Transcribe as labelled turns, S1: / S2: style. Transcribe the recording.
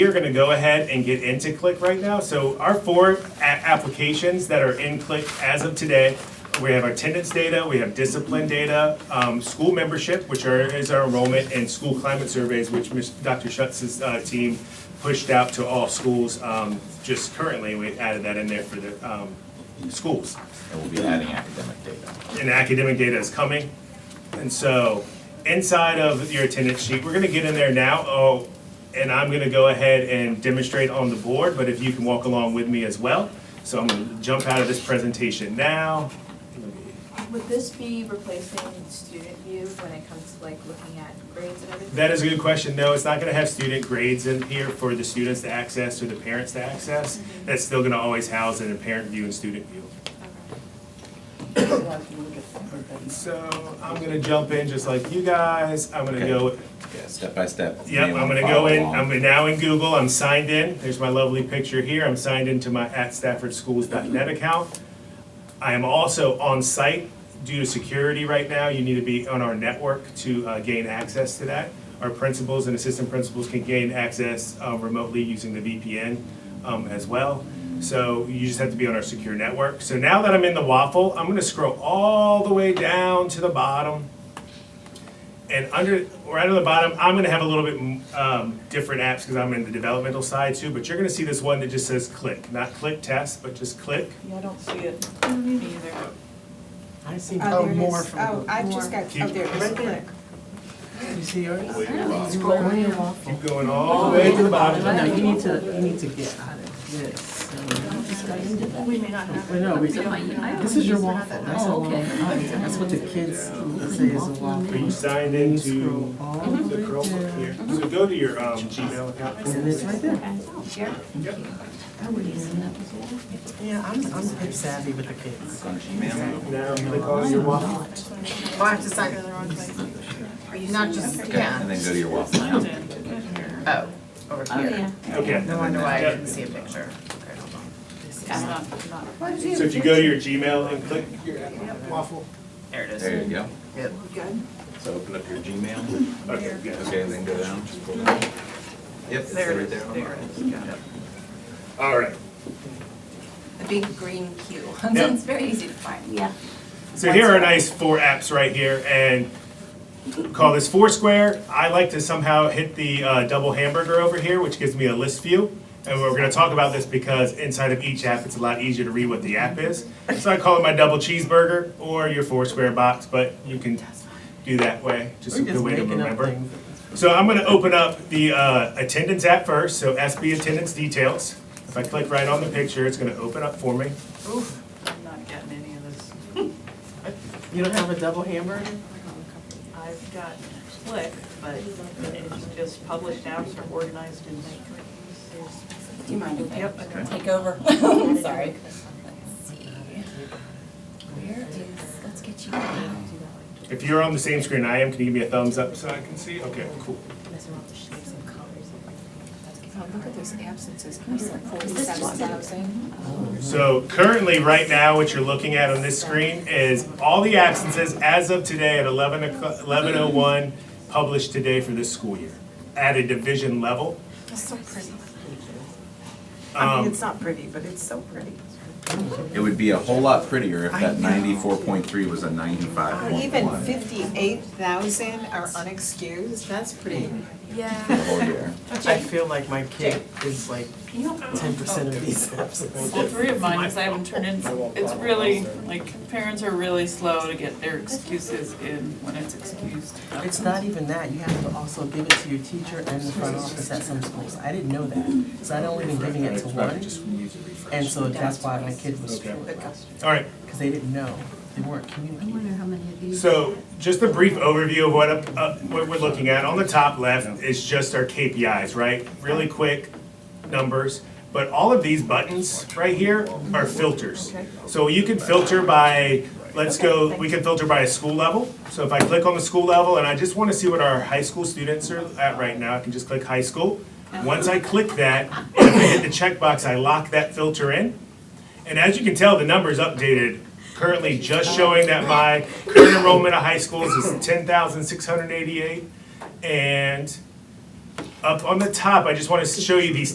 S1: We're gonna go ahead and get into Click right now. So our four a- applications that are in Click as of today, we have attendance data, we have discipline data, um, school membership, which are, is our enrollment, and school climate surveys, which Ms. Dr. Schutz's, uh, team pushed out to all schools, um, just currently, we added that in there for the, um, schools.
S2: and we'll be adding academic data.
S1: and academic data is coming. And so, inside of your attendance sheet, we're gonna get in there now, oh, and I'm gonna go ahead and demonstrate on the board, but if you can walk along with me as well. So I'm gonna jump out of this presentation now.
S3: Would this be replacing student view when it comes to like looking at grades and everything?
S1: That is a good question. No, it's not gonna have student grades in here for the students to access or the parents to access. That's still gonna always house it in parent view and student view. So, I'm gonna jump in just like you guys. I'm gonna
S2: Okay.
S1: go
S2: Yeah, step by step.
S1: Yep, I'm gonna go in, I'm now in Google, I'm signed in, there's my lovely picture here, I'm signed into my at staffordschools.net account. I am also on site due to security right now, you need to be on our network to uh, gain access to that. Our principals and assistant principals can gain access uh, remotely using the VPN um, as well. So you just have to be on our secure network. So now that I'm in the waffle, I'm gonna scroll all the way down to the bottom. And under, right on the bottom, I'm gonna have a little bit um, different apps because I'm in the developmental side too, but you're gonna see this one that just says click, not click test, but just click.
S4: Yeah, I don't see it.
S3: Me either.
S5: I see
S4: Oh,
S5: more
S4: more
S5: more
S4: from.
S5: from.
S4: Oh, I just got, oh, there it is,
S5: Right there.
S4: click.
S5: You see yours?
S1: Keep going all the way to the
S5: No,
S1: bottom.
S5: you need to, you need to get out of this.
S3: We may not have.
S5: Well, no, we, this is your waffle, that's a
S6: Oh,
S5: waffle.
S6: okay.
S5: That's what the kids say is a
S1: Are you
S5: waffle.
S1: signed
S5: And you
S1: into
S5: scroll all
S1: the
S5: the way
S1: Chromebook
S5: down.
S1: here?
S4: Mm-hmm.
S1: So go to your um, Gmail account.
S5: And it's right there. Yeah, I'm, I'm pretty savvy with the kids.
S2: On Gmail.
S1: Now click on your waffle.
S4: Well, Oh, I have to sign, not just,
S2: Okay,
S4: yeah,
S2: and then go to your waffle.
S4: oh, over here.
S1: Okay.
S4: No wonder why I
S1: Yeah.
S4: didn't see a picture. Okay, hold on.
S1: So if you go to your Gmail and click your waffle.
S4: There it
S2: There
S4: is.
S2: you go.
S4: Yep.
S2: So open up your Gmail.
S1: Okay, good.
S2: Okay, then go down. Just pull down. Yep, it's
S4: There it
S2: right
S4: is,
S2: there. on
S4: there
S2: mine.
S4: it is, got it.
S1: All right.
S6: A big green queue.
S1: Yeah.
S6: It's very easy to find. Yeah.
S1: So here are nice four apps right here, and call this Foursquare. I like to somehow hit the uh, double hamburger over here, which gives me a list view. And we're gonna talk about this because inside of each app, it's a lot easier to read what the app is. So I call it my double cheeseburger or your Foursquare box, but you can do that way, just a
S5: We're
S1: good
S5: just
S1: way to
S5: making up
S1: remember.
S5: things.
S1: So I'm gonna open up the uh, attendance app first, so SB attendance details. If I click right on the picture, it's gonna open up for me.
S4: Oof, I'm not getting any of this.
S5: You don't have a double hamburger?
S4: I've got Click, but it's just published apps are organized in
S6: Do you mind if
S4: Yep.
S6: I take over? I'm Sorry. Let's see. Where is, let's get you.
S1: If you're on the same screen I am, can you give me a thumbs up so I can see? Okay, cool.
S6: Look at those absences, forty-seven thousand.
S1: So currently, right now, what you're looking at on this screen is all the absences as of today at 11 o'clock- 11:01, published today for this school year, at a division level.
S6: That's so pretty.
S4: I mean,
S1: Um,
S4: it's not pretty, but it's so pretty.
S2: It would be a whole lot prettier if that ninety-four point three was a ninety-five point
S4: Oh, Even
S2: one
S4: fifty-eight thousand are unexcused, that's pretty.
S2: the
S6: Yeah.
S2: whole year.
S5: I feel like my kid is like ten percent of these
S7: All
S5: absences.
S7: three of mine, because I haven't turned in, it's really, like, parents are really slow to get their excuses in when it's excused.
S5: It's not even that, you have to also give it to your teacher and the front office at some schools. I didn't know that, so I'd only been giving it to one, and so that's why my kid was short,
S1: All right,
S5: because they didn't know, they weren't communicating.
S1: So, just a brief overview of what, uh, what we're looking at. On the top left is just our KPIs, right? Really quick numbers, but all of these buttons right here are filters. So you can filter by, let's go, we can filter by a school level. So if I click on the school level and I just wanna see what our high school students are at right now, I can just click high school. Once I click that, and if I hit the checkbox, I lock that filter in. And as you can tell, the number's updated, currently just showing that my current enrollment of high schools is ten thousand six hundred eighty-eight. And Up on the top, I just want to show you these